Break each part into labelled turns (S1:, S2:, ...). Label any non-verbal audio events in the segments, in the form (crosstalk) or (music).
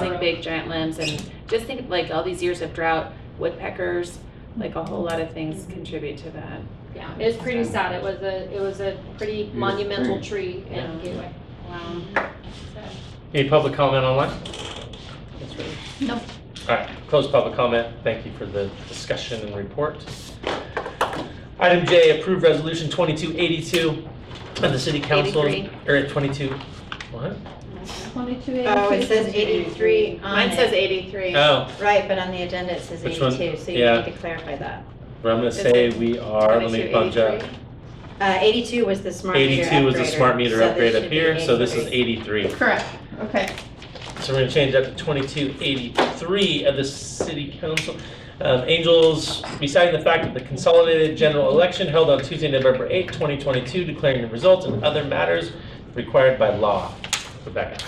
S1: causing big giant limbs and just think of, like all these years of drought, woodpeckers, like a whole lot of things contribute to that.
S2: Yeah, it was pretty sad. It was a, it was a pretty monumental tree in
S1: Yeah.
S2: Gateway.
S1: Wow.
S3: Any public comment online? No. All right, close public comment. Thank you for the discussion and report. Item J, approve resolution 2282 of the city council. Or at 22, what?
S4: Oh, it says 83 on
S1: Mine says
S4: it.
S1: eighty-three.
S3: Oh,
S4: Right, but on the agenda it says
S3: Which one?
S4: 82, so you
S3: Yeah.
S4: need to clarify that.
S3: but I'm gonna
S1: Is
S3: say we are, let me bunch up.
S4: Uh, 82 was the smart meter upgrade.
S3: 82 was the smart meter upgrade up here, so this is 83.
S5: Correct, okay.
S3: So we're gonna change that to twenty-two eighty-three of the city council. Um, Angels, reciting the fact that the consolidated general election held on Tuesday, November eighth, twenty twenty-two, declaring the results and other matters required by law. Rebecca,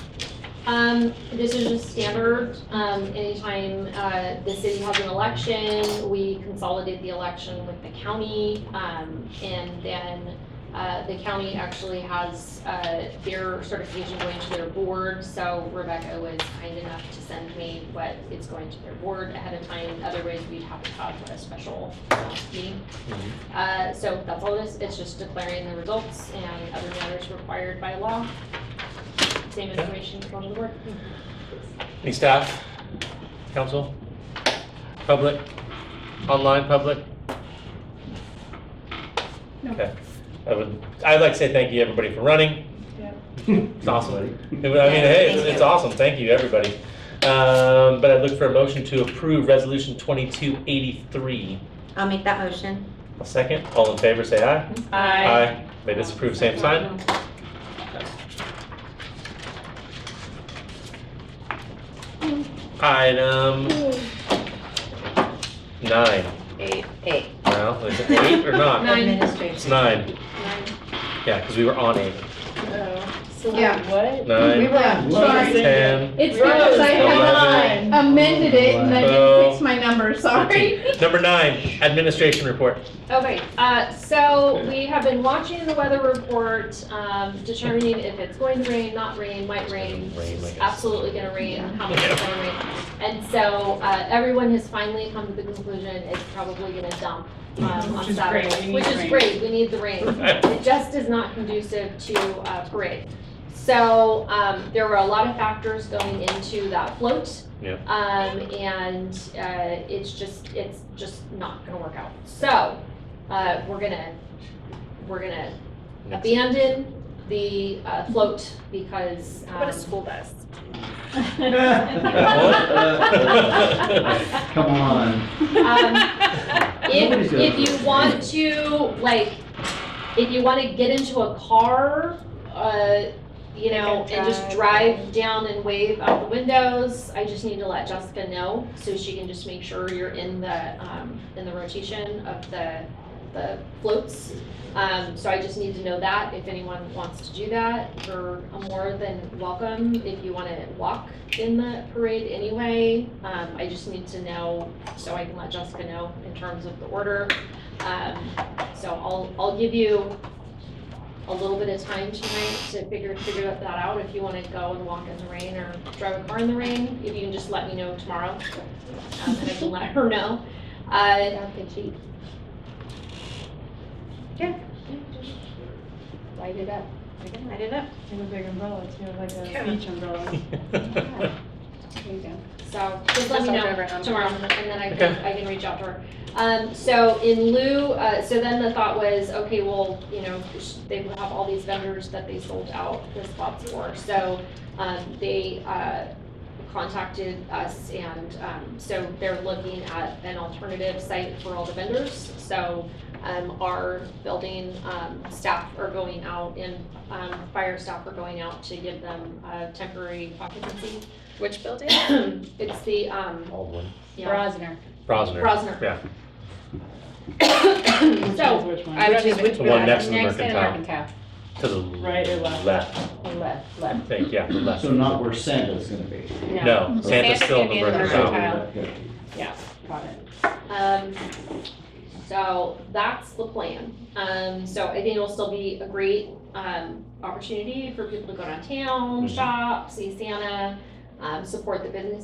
S2: Um, this is just standard, um, anytime, uh, the city has an election, we consolidate the election with the county. Um, and then, uh, the county actually has, uh, their certification going to their board. So Rebecca was kind enough to send me what it's going to their board ahead of time, otherwise we'd have to have a special uh, meeting. Uh, so that's all this, it's just declaring the results and other matters required by law. Same information from the board.
S3: any staff, council, public, online public?
S5: No.
S3: Okay, I would, I'd like to say thank you, everybody, for running.
S5: Yep.
S3: It's awesome. I mean, hey, it's,
S4: Thank
S3: it's
S4: you.
S3: awesome. Thank you, everybody. Um, but I look for a motion to approve resolution twenty-two eighty-three.
S4: I'll make that motion.
S3: A second, all in favor, say aye. Aye. May disapprove, same sign. Item nine.
S4: Eight. Eight.
S3: Well, is it eight or not?
S2: Nine.
S3: It's
S4: Administration.
S3: nine. Yeah, because we were on eight.
S5: Yeah.
S3: Nine.
S5: were,
S3: Ten.
S5: It's because I
S3: Eleven.
S5: had amended it and I didn't fix my number, sorry.
S3: 13. Number nine, administration report.
S2: Okay, uh, so we have been watching the weather report, um, determining if it's going to rain, not rain, might rain.
S3: Rain, I guess.
S2: It's absolutely gonna rain, how much it's gonna rain. And so, uh, everyone has finally come to the conclusion it's probably gonna dump, um,
S5: Which
S2: on
S5: is great, we
S2: Saturday.
S5: need
S2: Which is
S5: rain.
S2: great, we need the rain.
S5: (laughs)
S2: It just is not conducive to uh, parade. So um, there were a lot of factors going into that float.
S3: Yeah.
S2: Um, and uh, it's just it's just not going to work out. So uh, we're gonna we're gonna abandon the uh, float because
S1: (laughs)
S2: um,
S1: bus.
S3: uh, What?
S6: Come on.
S2: um, (laughs)
S6: Nobody's
S2: if,
S6: gonna-
S2: if you want to, like, if you want to get into a car, uh, you know, and just drive down and wave out the windows, I just need to let Jessica know so she can just make sure you're in the, um, in the rotation of the, the floats. Um, so I just need to know that if anyone wants to do that, you're more than welcome. If you want to walk in the parade anyway, um, I just need to know so I can let Jessica know in terms of the order. Um, so I'll, I'll give you a little bit of time tonight to figure, figure that out, if you wanna go and walk in the rain or drive a car in the rain, if you can just let me know tomorrow. Um, and I can let her know. Uh, light it up.
S4: I can light it up.
S7: And a big umbrella too, like
S1: Yeah.
S7: a beach umbrella.
S3: (laughs)
S2: So just let
S1: Just
S2: me
S1: I'll
S2: know
S1: drive around.
S2: tomorrow, and then I can, I can reach out to her. Um, so in lieu, uh, so then the thought was, okay, well, you know, they will have all these vendors that they sold out the spots for. So, um, they, uh, contacted us and, um, so they're looking at an alternative site for all the vendors. So, um, our building, um, staff are going out and, um, fire staff are going out to give them, uh, temporary occupancy
S1: Which building?
S2: (coughs) it's the, um,
S3: Baldwin.
S2: yeah,
S3: Brosner.
S2: Brosner.
S3: Yeah.
S2: So,
S7: Which one?
S1: I don't
S4: is
S1: even.
S4: which
S3: The one next to the
S5: Next to the
S3: Mercantile. To the
S7: Right or left?
S3: Left,
S5: Left,
S3: I
S5: left.
S3: think, yeah, the left.
S6: So not where Santa's gonna be.
S3: No, Santa's
S1: Santa's
S3: still in
S1: gonna be
S3: the
S1: in the
S3: Mercantile.
S5: Mercantile.
S6: Okay.
S5: Got it.
S2: um, so that's the plan. Um, so I think it'll still be a great, um, opportunity for people to go downtown, shop, see Santa. um, support the business